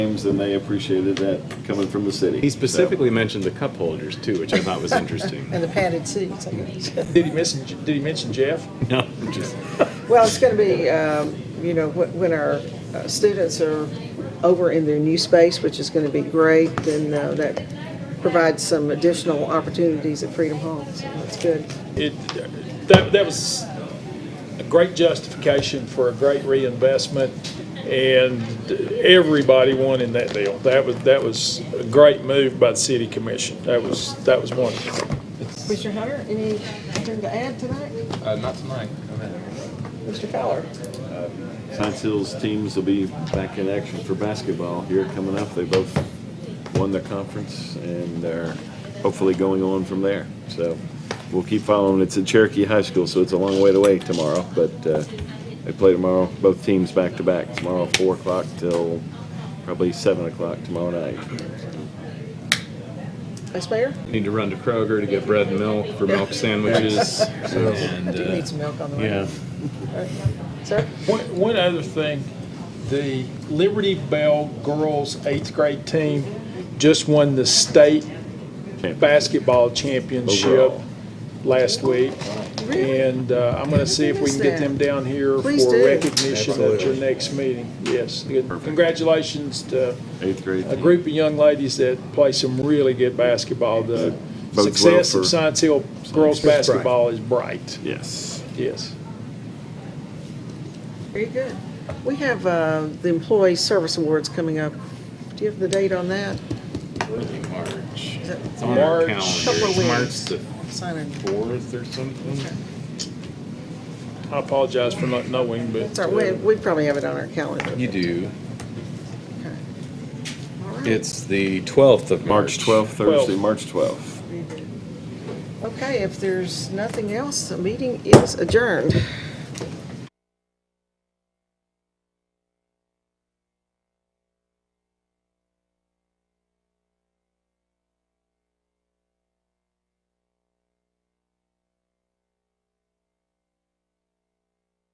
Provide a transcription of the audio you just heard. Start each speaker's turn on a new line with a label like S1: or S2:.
S1: names, and they appreciated that coming from the city.
S2: He specifically mentioned the cup holders too, which I thought was interesting.
S3: And the padded seats, I guess.
S4: Did he mention, did he mention Jeff?
S2: No, just,
S3: Well, it's going to be, um, you know, wh- when our uh, students are over in their new space, which is going to be great, then uh, that provides some additional opportunities at Freedom Hall, so that's good.
S4: It, that, that was a great justification for a great reinvestment, and everybody won in that deal. That was, that was a great move by the city commission. That was, that was wonderful.
S3: Mr. Hunter, anything to add tonight?
S5: Uh, not tonight. I mean,
S3: Mr. Fowler?
S1: Science Hills teams will be back in action for basketball here coming up. They both won their conference and they're hopefully going on from there. So we'll keep following. It's at Cherokee High School, so it's a long way to wait tomorrow, but uh, they play tomorrow, both teams back to back, tomorrow four o'clock till probably seven o'clock tomorrow night.
S3: Vice Mayor?
S2: need to run to Kroger to get bread and milk for milk sandwiches. and,
S3: I do
S2: uh,
S3: need some milk on the way.
S2: Yeah,
S3: Sir?
S4: One, one other thing, the Liberty Bell girls eighth grade team just won the state basketball championship
S1: Overall.
S4: last week.
S3: Really?
S4: And uh, I'm going to see if we can get them down here
S3: Please
S4: for
S3: do.
S4: recognition at your next meeting. Yes. Congratulations to
S1: Eighth grade.
S4: a group of young ladies that play some really good basketball. The
S1: Bodes well
S4: success
S1: for-
S4: of Science Hill girls
S1: It's bright.
S4: basketball is bright.
S1: Yes.
S4: Yes.
S3: Very good. We have uh, the Employee Service Awards coming up. Do you have the date on that?
S2: early March.
S3: Is it
S2: It's on
S4: March.
S2: our calendar.
S3: Couple of
S2: It's
S3: weeks.
S2: March the
S3: Sign in.
S2: fourth or something.
S4: I apologize for not knowing, but.
S3: It's our, we, we probably have it on our calendar.
S2: You do.
S3: Okay. All right.
S2: It's the twelfth of
S1: March 12th, Thursday,
S4: Twelve.
S1: March 12th.
S3: Okay, if there's nothing else, the meeting is adjourned.